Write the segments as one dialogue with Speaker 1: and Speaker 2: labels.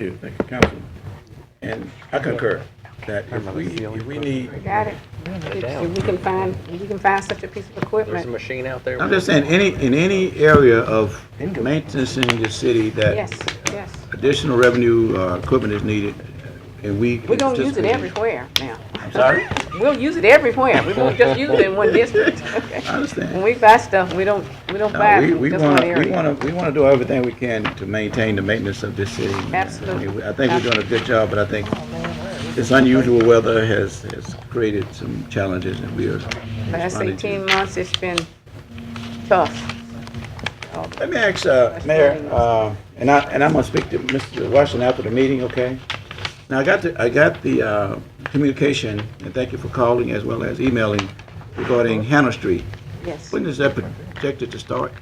Speaker 1: you, thank you, Councilman. And I concur that if we, if we need,
Speaker 2: Got it. If if we can find, if we can find such a piece of
Speaker 3: There's a
Speaker 2: equipment,
Speaker 3: machine out there.
Speaker 1: I'm just saying, any, in any area of maintenance in the city
Speaker 2: yes,
Speaker 1: that
Speaker 2: yes.
Speaker 1: additional revenue, uh, equipment is needed, uh, and we.
Speaker 2: We're gonna use it
Speaker 1: participate-
Speaker 2: everywhere now.
Speaker 1: I'm sorry?
Speaker 2: We'll use it everywhere. We won't just use it in one district. Okay.
Speaker 1: I understand.
Speaker 2: When we buy stuff, we don't, we don't
Speaker 1: No,
Speaker 2: buy
Speaker 1: we,
Speaker 2: from
Speaker 1: we
Speaker 2: just one
Speaker 1: wanna, we
Speaker 2: area.
Speaker 1: wanna, we wanna do everything we can to maintain the maintenance of this city.
Speaker 2: Absolutely. Oh,
Speaker 1: I mean, I think we're doing a good job, but I think this unusual weather has, has created some challenges and we are
Speaker 2: Last
Speaker 1: responding to.
Speaker 2: eighteen months, it's been tough.
Speaker 1: Let me ask, uh, Mayor, uh, and I, and I'm gonna speak to Mr. Washington after the meeting, okay? Now, I got the, I got the, uh, communication, and thank you for calling as well as emailing regarding Hannah Street.
Speaker 2: Yes.
Speaker 1: When is that projected to start?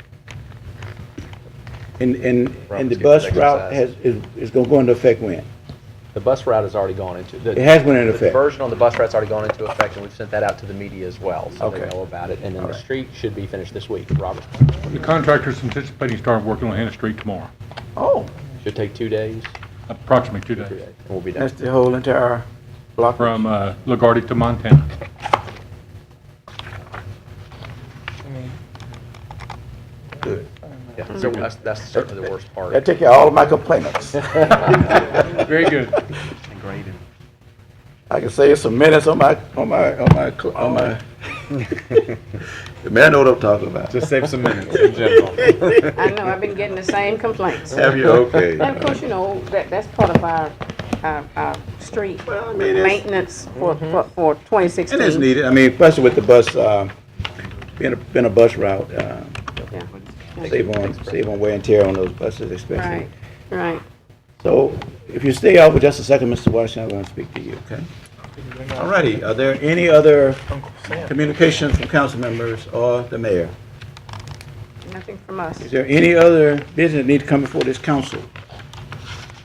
Speaker 1: And, and, and the bus route has, is, is gonna go into effect when?
Speaker 3: The bus route has already gone into.
Speaker 1: It has went into
Speaker 3: The
Speaker 1: effect.
Speaker 3: version on the bus route's already gone into effect, and we've sent that out to the media as well, so they
Speaker 1: Okay.
Speaker 3: know about it. And then the
Speaker 1: Alright.
Speaker 3: street should be finished this week, Robert.
Speaker 4: The contractor's anticipating starting working on Hannah Street tomorrow,
Speaker 1: Oh.
Speaker 3: Should take two days,
Speaker 4: approximately two
Speaker 3: three
Speaker 4: days,
Speaker 3: days, and we'll be done.
Speaker 1: That's the whole entire block?
Speaker 4: from uh, LaGuardia to Montana.
Speaker 1: Good.
Speaker 3: Yeah, so that's, that's certainly the worst part.
Speaker 1: That take care of all of my complaints.
Speaker 4: Very good.
Speaker 1: I can say it's some minutes on my, on my, on my, cl- on my. The man know what I'm talking about.
Speaker 5: Just save some minutes in general.
Speaker 2: I know, I've been getting the same complaints.
Speaker 1: Have you, okay.
Speaker 2: And of course, you know, that, that's part of our, our, our street
Speaker 1: Well, I mean, it's- Mm-hmm.
Speaker 2: maintenance for, for, for twenty sixteen.
Speaker 1: It is needed, I mean, especially with the bus, uh, being a, being a bus route, uh, save on, save on wear and tear on those buses especially.
Speaker 2: Right, right.
Speaker 1: So if you stay out for just a second, Mr. Washington, I want to speak to you, okay? All righty, are there any other communications from council members or the mayor?
Speaker 2: Nothing from us.
Speaker 1: Is there any other business that need to come before this council?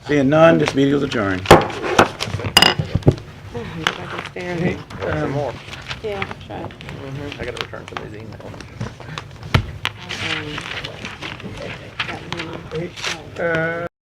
Speaker 1: Seeing none, this meeting is adjourned.
Speaker 2: I'm just like staring at-
Speaker 3: Some more.
Speaker 2: Yeah, I'm trying.
Speaker 3: I gotta return some of these emails.
Speaker 2: Um, got one.